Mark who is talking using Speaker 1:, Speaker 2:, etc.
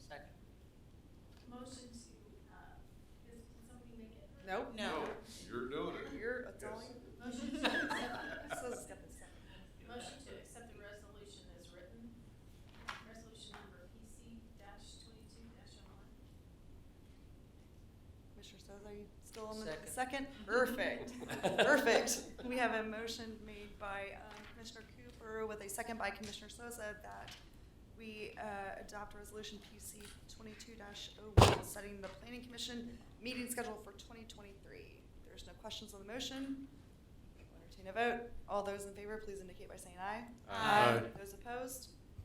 Speaker 1: uh,
Speaker 2: Nope.
Speaker 3: No.
Speaker 4: You're doing it.
Speaker 2: You're, that's all
Speaker 4: Yes.
Speaker 2: you.
Speaker 1: Motion to accept,
Speaker 2: So it's got the second.
Speaker 1: motion to accept the resolution as written. Resolution number PC dash twenty-two dash oh one.
Speaker 2: Commissioner Soza, are you still on the
Speaker 5: Second.
Speaker 2: second? Perfect, perfect. We have a motion made by um, Commissioner Cooper with a second by Commissioner Soza that we uh, adopt resolution PC twenty-two dash oh one, setting the planning commission meeting schedule for twenty twenty-three. There's no questions on the motion. We'll Entertain a vote. All those in favor, please indicate by saying aye.
Speaker 4: Aye. Aye.
Speaker 2: Those opposed?